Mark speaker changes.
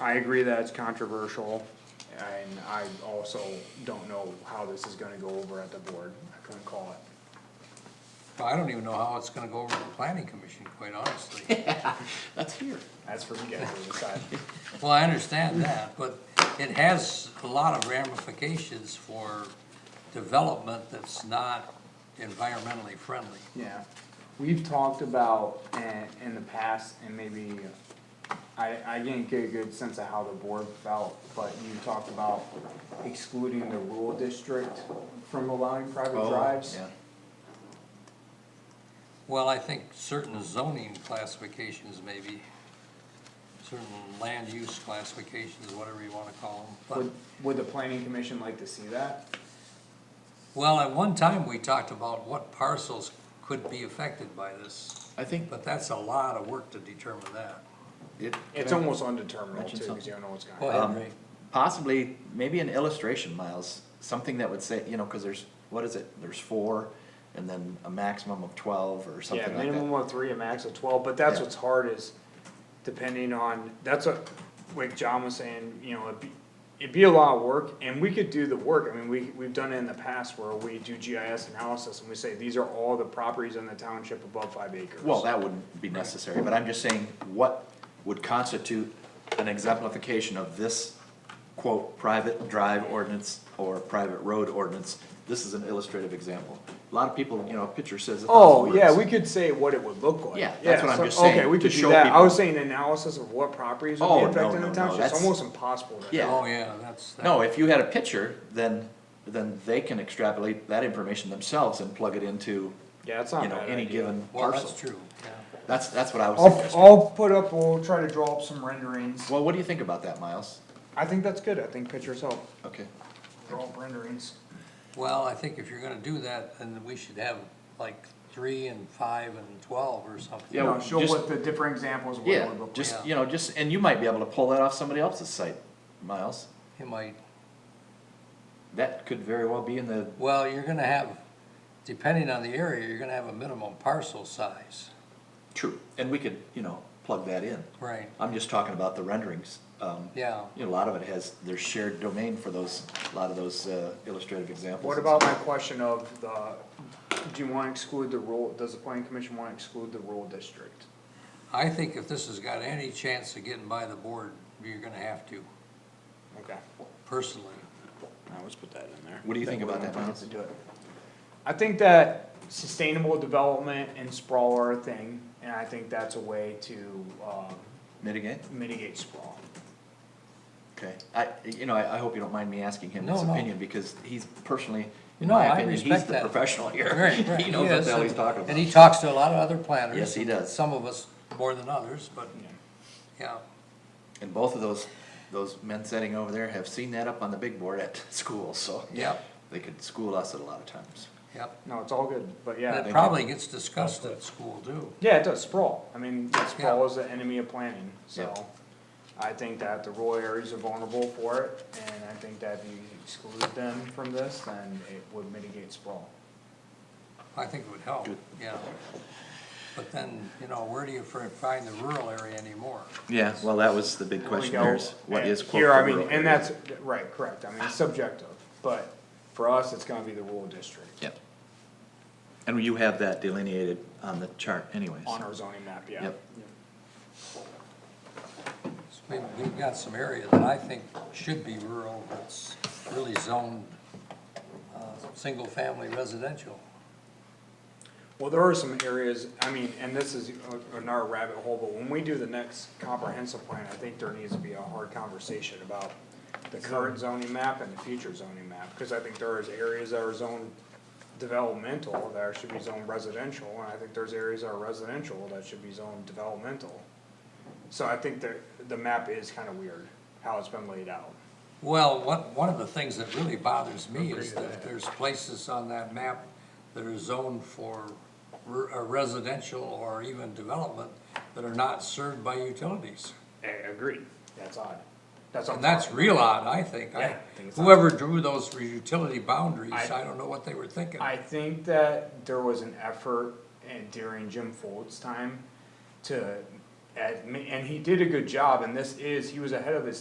Speaker 1: I agree that it's controversial, and I also don't know how this is gonna go over at the board, I couldn't call it.
Speaker 2: Well, I don't even know how it's gonna go over the planning commission, quite honestly.
Speaker 3: That's here.
Speaker 1: That's for you guys to decide.
Speaker 2: Well, I understand that, but it has a lot of ramifications for development that's not environmentally friendly.
Speaker 1: Yeah, we've talked about in, in the past, and maybe, I, I didn't get a good sense of how the board felt, but you talked about excluding the rural district from allowing private drives.
Speaker 3: Oh, Yeah.
Speaker 2: Well, I think certain zoning classifications maybe, certain land use classifications, whatever you wanna call them.
Speaker 1: Would,
Speaker 2: But,
Speaker 1: would the planning commission like to see that?
Speaker 2: well, at one time, we talked about what parcels could be affected by this,
Speaker 3: I think
Speaker 2: but that's a lot of work to determine that.
Speaker 3: it.
Speaker 1: It's almost undeterminable too,
Speaker 3: Mention
Speaker 1: cause
Speaker 3: something.
Speaker 1: you don't know what's gonna
Speaker 2: Go
Speaker 1: happen.
Speaker 2: ahead,
Speaker 3: Um,
Speaker 2: Ray.
Speaker 3: Possibly, maybe an illustration, Miles, something that would say, you know, cause there's, what is it, there's four, and then a maximum of twelve or
Speaker 1: Yeah,
Speaker 3: something like
Speaker 1: minimum
Speaker 3: that.
Speaker 1: of three, a max of twelve, but that's
Speaker 3: Yeah.
Speaker 1: what's hard is depending on, that's what, like John was saying, you know, it'd be. It'd be a lot of work and we could do the work, I mean, we, we've done it in the past where we do GIS analysis and we say, these are all the properties in the township above five acres.
Speaker 3: Well, that wouldn't be necessary, but I'm just saying, what would constitute an exemplification of this quote, private drive ordinance or private road ordinance? This is an illustrative example. A lot of people, you know, a picture says a thousand
Speaker 1: Oh,
Speaker 3: words.
Speaker 1: yeah, we could say what it would look like.
Speaker 3: Yeah, that's what I'm
Speaker 1: so-
Speaker 3: just saying,
Speaker 1: Okay, we
Speaker 3: to
Speaker 1: could do
Speaker 3: show
Speaker 1: that, I
Speaker 3: people.
Speaker 1: was saying analysis of what properties would
Speaker 3: Oh,
Speaker 1: be
Speaker 3: no,
Speaker 1: affected in
Speaker 3: no,
Speaker 1: the
Speaker 3: no,
Speaker 1: township, it's
Speaker 3: that's-
Speaker 1: almost impossible to.
Speaker 3: Yeah.
Speaker 2: Oh, yeah, that's. that-
Speaker 3: No, if you had a picture, then, then they can extrapolate that information themselves and plug it into,
Speaker 1: Yeah, it's not a
Speaker 3: you know,
Speaker 1: bad
Speaker 3: any
Speaker 1: idea.
Speaker 3: given
Speaker 2: Well, Oh, that's
Speaker 3: parcel.
Speaker 2: true, yeah.
Speaker 3: That's, that's what I was
Speaker 1: I'll,
Speaker 3: suggesting.
Speaker 1: I'll put up, we'll try to draw up some renderings,
Speaker 3: Well, what do you think about that, Miles?
Speaker 1: I think that's good, I think pictures help.
Speaker 3: Okay.
Speaker 1: They're all renderings.
Speaker 2: Well, I think if you're gonna do that, then we should have like three and five and twelve or something.
Speaker 3: Yeah,
Speaker 1: No, show
Speaker 3: just-
Speaker 1: what the different examples of what it
Speaker 3: Yeah,
Speaker 1: would look like.
Speaker 3: just, you know, just, and you might be able to pull that off somebody else's site, Miles.
Speaker 2: You might,
Speaker 3: That could very well be in the,
Speaker 2: well, you're gonna have, depending on the area, you're gonna have a minimum parcel size.
Speaker 3: true, and we could, you know, plug that in.
Speaker 2: Right,
Speaker 3: I'm just talking about the renderings. Um,
Speaker 2: yeah.
Speaker 3: you know, a lot of it has, there's shared domain for those, a lot of those uh, illustrative examples.
Speaker 1: What about my question of the, do you wanna exclude the rural, does the planning commission wanna exclude the rural district?
Speaker 2: I think if this has got any chance of getting by the board, you're gonna have to,
Speaker 1: Okay.
Speaker 2: personally.
Speaker 1: I let's put that in there.
Speaker 3: What do you think about that, Miles?
Speaker 1: I think that sustainable development and sprawl are a thing, and I think that's a way to, um,
Speaker 3: Mitigate?
Speaker 1: mitigate sprawl.
Speaker 3: Okay, I, you know, I, I hope you don't mind me asking him his
Speaker 2: No, no.
Speaker 3: opinion, because he's personally, in
Speaker 2: No,
Speaker 3: my
Speaker 2: I
Speaker 3: opinion, he's
Speaker 2: respect
Speaker 3: the
Speaker 2: that.
Speaker 3: professional here.
Speaker 2: Right, right,
Speaker 3: He knows what
Speaker 2: is,
Speaker 3: the hell
Speaker 2: and-
Speaker 3: he's talking
Speaker 2: And he
Speaker 3: about.
Speaker 2: talks to a lot of other planners.
Speaker 3: Yes, he does.
Speaker 2: Some of us more than others, but, yeah.
Speaker 3: And both of those, those men sitting over there have seen that up on the big board at school, so.
Speaker 2: Yep.
Speaker 3: They could school us at a lot of times.
Speaker 2: Yep.
Speaker 1: No, it's all good, but
Speaker 2: And
Speaker 1: yeah,
Speaker 2: It probably gets discussed at school too.
Speaker 1: yeah, it does sprawl, I mean, sprawl is the enemy of planning,
Speaker 3: Yeah.
Speaker 1: so. I think that the rural areas are vulnerable for it, and I think that if you exclude them from this, then it would mitigate sprawl.
Speaker 2: I think it would help,
Speaker 3: Good.
Speaker 2: yeah. But then, you know, where do you fir- find the rural area anymore?
Speaker 3: Yeah, well, that was the big question
Speaker 1: We go-
Speaker 3: there is, what is quote.
Speaker 1: Here, I
Speaker 3: for
Speaker 1: mean,
Speaker 3: rural
Speaker 1: and
Speaker 3: area?
Speaker 1: that's, right, correct, I mean, it's subjective, but for us, it's gonna be the rural district
Speaker 3: Yep. And you have that delineated on the chart anyways.
Speaker 1: on our zoning map, yeah.
Speaker 3: Yep.
Speaker 2: So We've, we've got some area that I think should be rural, that's really zoned, uh, single-family residential.
Speaker 1: Well, there are some areas, I mean, and this is a- another rabbit hole, but when we do the next comprehensive plan, I think there needs to be a hard conversation about the current zoning map and the future zoning map, cause I think there is areas that are zoned developmental, that should be zoned residential, and I think there's areas that are residential that should be zoned developmental. So I think the, the map is kinda weird, how it's been laid out.
Speaker 2: Well, one, one of the things that really bothers me is that there's places on that map that are zoned for re- uh, residential or even development that are not served by utilities.
Speaker 1: I agree. That's odd. That's
Speaker 2: And that's real odd, I think.
Speaker 1: Yeah,
Speaker 2: I,
Speaker 1: I think it's odd.
Speaker 2: whoever drew those utility boundaries,
Speaker 1: I-
Speaker 2: I don't know what they were thinking.
Speaker 1: I think that there was an effort and during Jim Folt's time to at, and he did a good job, and this is, he was ahead of his